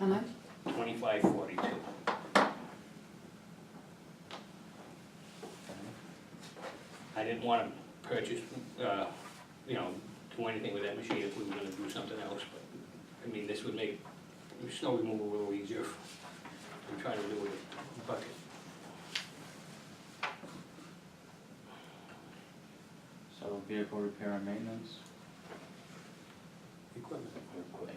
How much? twenty-five forty-two. I didn't wanna purchase, uh, you know, do anything with that machine if we were gonna do something else, but, I mean, this would make snow removal a little easier. I'm trying to do it with a bucket. So vehicle repair and maintenance, Equipment.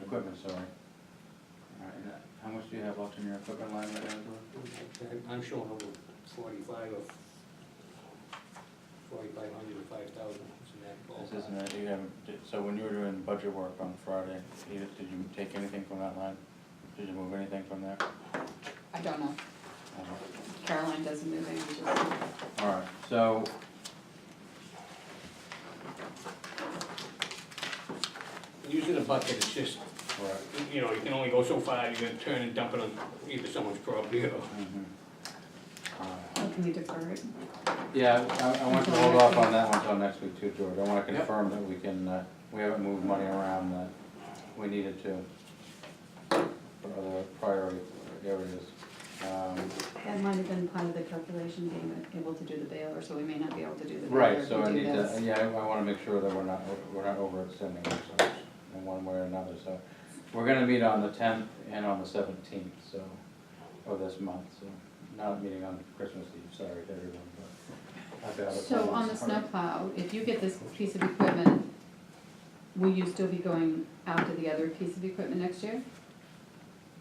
equipment, sorry. Alright, and that- how much do you have left in your equipment line right now, Drew? I'm showing over forty-five or forty-five hundred or five thousand, it's in that ballpark. This isn't, it, you haven't, did- so when you were doing budget work on Friday, you, did you take anything from that line? Did you move anything from there? I don't know. Caroline doesn't move any, she just- Alright, so. Using a bucket, it's just, Right. you know, you can only go so far, you're gonna turn and dump it on either someone's property or. mhm. Alright. oh, can we defer it? Yeah, I, I want to hold off on that one until next week too, George. I wanna Yep. confirm that we can, uh, we haven't moved money around that we needed to for other priority areas. Um, That might have been part of the calculation, being able to do the baler, so we may not be able to do the baler Right, if so I we do need to, this. yeah, I I wanna make sure that we're not, we're not overextending ourselves in one way or another, so. We're gonna meet on the tenth and on the seventeenth, so, of this month, so, not a meeting on Christmas Eve, sorry to everyone, but. I've got a- So on the snowplow, if you get this piece of equipment, will you still be going after the other piece of equipment next year?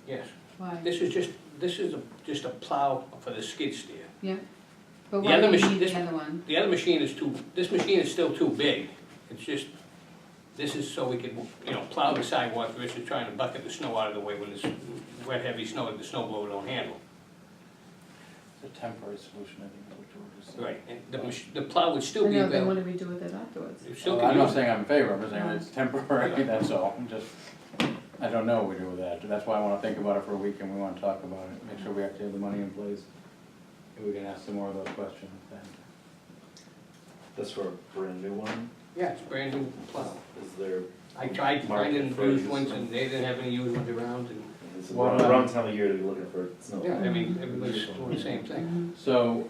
Yes, Why? this is just, this is a- just a plow for the skid steer. Yeah? But The why other do you machine- need this- the other one? The other machine is too, this machine is still too big. It's just, this is so we could, you know, plow the sidewalk versus trying to bucket the snow out of the way when it's wet, heavy snow that the snow blower don't handle. It's a temporary solution, I think, is what George is saying. Right, and the mach, the plow would still I be know, then what available. do we do with it afterwards? It still Well, could Oh, I'm not use- saying I'm in favor, I'm just saying No. it's temporary, that's all, I'm just, I don't know what we do with that, that's why I wanna think about it for a week and we wanna talk about it, make sure we actually have the money in place. And we can ask some more of those questions then. That's for a brand new one? Yeah, it's brand new plow. Is there? I tried finding market for used these? ones and they didn't have any used ones around and, It's Well, around, no. around time of year to be looking for snow. yeah, Mm-hmm. I mean, everybody's doing the same thing. Mhm. So,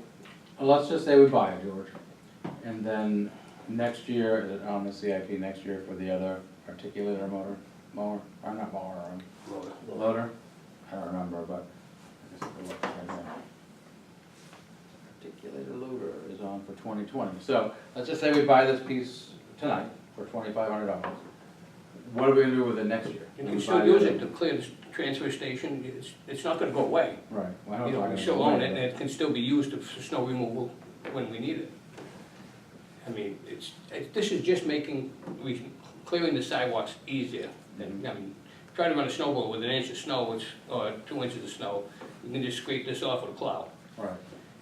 let's just say we buy it, George, and then next year, is it on the CIP next year for the other articulator motor, mower, or not mower, um, Loader. loader? I don't remember, but I guess it looks like that. Articulated loader is on for twenty twenty, so let's just say we buy this piece tonight for twenty-five hundred dollars. What are we gonna do with it next year? You We can buy still use the- it to clear the s- transfer station, it's, it's not gonna go away. Right. well, I don't You know, I'm we gonna still buy own it, but- and it can still be used for snow removal when we need it. I mean, it's, it- this is just making, we, clearing the sidewalks easier. than- I mean, try to run a snowball with an inch of snow, it's, or two inches of snow, you can just scrape this off with a plow. Right,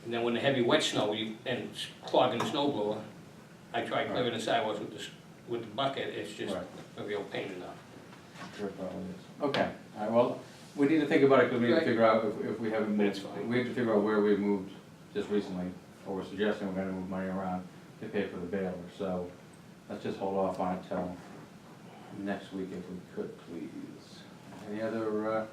And then when the heavy wet snow, you, and it's clogging the snow blower, I try clearing the sidewalks with this, with the bucket, it's just Right. a real pain in the. sure it probably is. Okay, all right, well, we need to think about it, because we need to Right. figure out if, if we haven't moved. That's fine. We have to figure out where we moved just recently, or we're suggesting we're gonna move money around to pay for the baler, so let's just hold off on it till next week if we could, please. Any other, uh,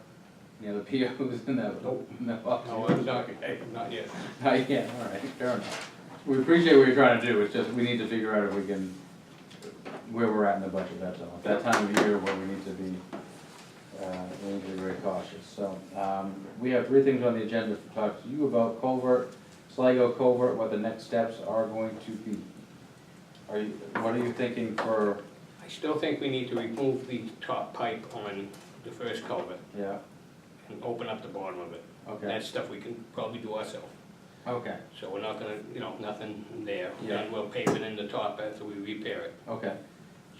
any other POs in that? Nope. No, No, it's not, not yet. not yet, all right, fair enough. We appreciate what you're trying to do, it's just, we need to figure out if we can, where we're at in the budget, that's all. At that time of year where we need to be, uh, we need to be very cautious, so. um, We have three things on the agenda to talk to you about, culvert, Sligo culvert, what the next steps are going to be. Are you, what are you thinking for, I still think we need to remove the top pipe on the first culvert yeah, and open up the bottom of it. okay, That stuff we can probably do ourselves. okay, So we're not gonna, you know, nothing there. Yeah. And we'll pave it in the top after we repair it. okay,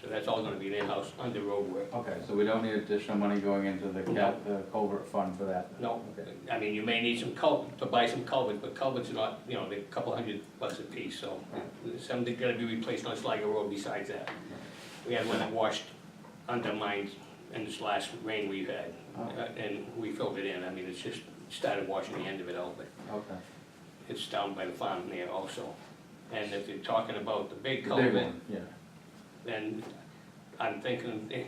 So that's all gonna be an in-house under road work. okay, so we don't need additional money going into the cap, the culvert fund for that? No, Okay. I mean, you may need some cul, to buy some culvert, but culverts are not, you know, they're a couple hundred bucks a piece, so some that gotta be replaced on Sligo Road besides that. We had one that washed under mine in this last rain we've had, Oh. uh, and we filled it in, I mean, it's just started washing the end of it out, but Okay. it's down by the farm there also. And if you're talking about the big The big culvert, one, Yeah. then I'm thinking, eh,